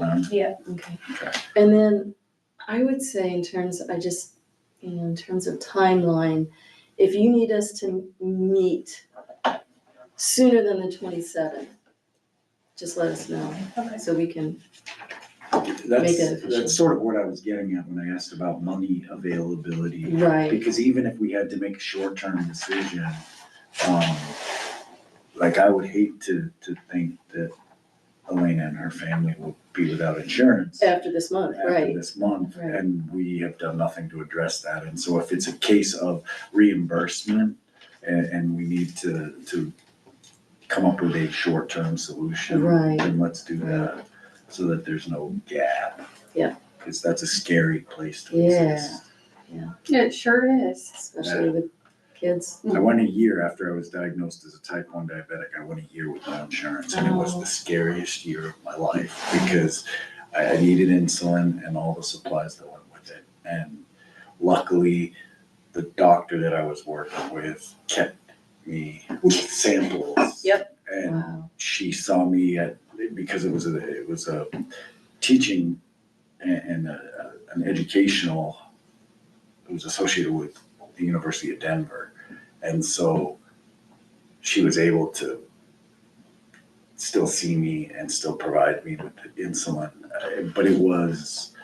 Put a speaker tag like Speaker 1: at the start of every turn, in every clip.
Speaker 1: around.
Speaker 2: Yeah.
Speaker 3: Okay.
Speaker 1: Okay.
Speaker 3: And then I would say in terms, I just, you know, in terms of timeline, if you need us to meet sooner than the twenty-seventh, just let us know
Speaker 2: Okay.
Speaker 3: so we can, Make it
Speaker 1: That's,
Speaker 3: official.
Speaker 1: that's sort of what I was getting at when I asked about money availability.
Speaker 3: right,
Speaker 1: Because even if we had to make a short-term decision, um, like I would hate to, to think that Elena and her family will be without insurance.
Speaker 3: after this month,
Speaker 1: after
Speaker 3: right?
Speaker 1: this month,
Speaker 3: Right.
Speaker 1: and we have done nothing to address that. And so if it's a case of reimbursement and, and we need to, to come up with a short-term solution,
Speaker 3: Right.
Speaker 1: then let's do that, so that there's no gap.
Speaker 3: Yeah.
Speaker 1: Cause that's a scary place to
Speaker 3: Yeah.
Speaker 1: exist.
Speaker 4: It sure is.
Speaker 3: Especially with kids.
Speaker 1: I went a year after I was diagnosed as a type one diabetic, I went a year with no insurance, and it was
Speaker 3: Oh.
Speaker 1: the scariest year of my life, because I, I needed insulin and all the supplies that went with it, and luckily, the doctor that I was working with kept me with samples.
Speaker 3: Yep.
Speaker 1: And
Speaker 3: Wow,
Speaker 1: she saw me at, because it was a, it was a teaching and, and a, an educational, it was associated with the University of Denver. And so she was able to still see me and still provide me with the insulin. Uh, But it was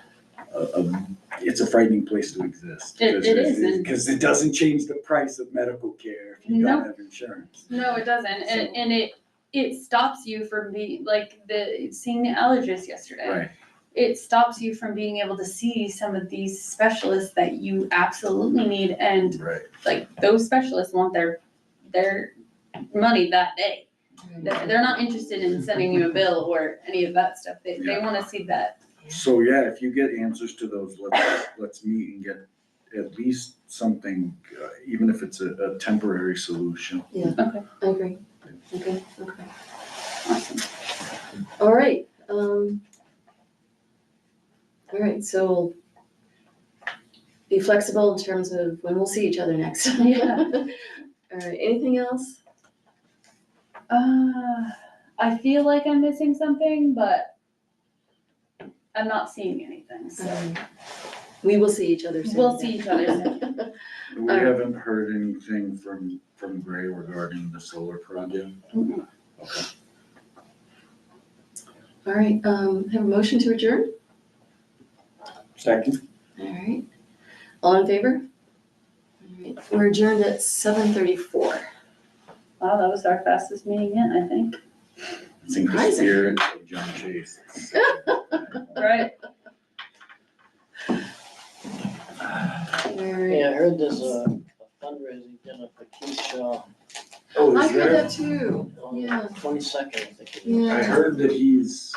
Speaker 1: a, a, it's a frightening place to exist.
Speaker 4: It- it is, and-
Speaker 1: Because it doesn't change the price of medical care if you don't
Speaker 4: No.
Speaker 1: have insurance.
Speaker 4: No, it doesn't, and,
Speaker 1: So-
Speaker 4: and it, it stops you from being, like, the, seeing the allergist yesterday.
Speaker 1: Right,
Speaker 4: It stops you from being able to see some of these specialists that you absolutely need, and
Speaker 1: right.
Speaker 4: like, those specialists want their, their money that day. They're, they're not interested in sending you a bill or any of that stuff, they, they wanna see that.
Speaker 1: So yeah, if you get answers to those, let's, let's meet and get at least something, uh, even if it's a, a temporary solution.
Speaker 3: I agree, okay, okay.
Speaker 4: Awesome.
Speaker 3: All right, um. All right, so we'll be flexible in terms of when we'll see each other next.
Speaker 4: Yeah.
Speaker 3: All right, anything else?
Speaker 4: Uh, I feel like I'm missing something, but I'm not seeing anything, so.
Speaker 3: Um, We will see each other soon.
Speaker 4: We'll see each other soon.
Speaker 1: We
Speaker 3: Alright.
Speaker 1: haven't heard anything from, from Gray regarding the solar project.
Speaker 3: Mm-hmm.
Speaker 4: Mm-mm.
Speaker 1: Okay.
Speaker 3: All right, um, have a motion to adjourn?
Speaker 1: Second.
Speaker 3: All right, all in favor? All right, we're adjourned at seven thirty-four.
Speaker 4: Wow, that was our fastest meeting yet, I think.
Speaker 1: I think the
Speaker 3: Surprising.
Speaker 1: spirit of John Chase.
Speaker 4: Right.
Speaker 3: All right.
Speaker 5: Yeah, I heard there's a a fundraising dinner for Keith Shaw
Speaker 1: Oh,
Speaker 3: I
Speaker 1: is
Speaker 3: heard
Speaker 1: there?
Speaker 3: that too,
Speaker 5: on
Speaker 3: yeah,
Speaker 5: the twenty-second, I think. it is.
Speaker 3: yeah.
Speaker 1: I heard that he's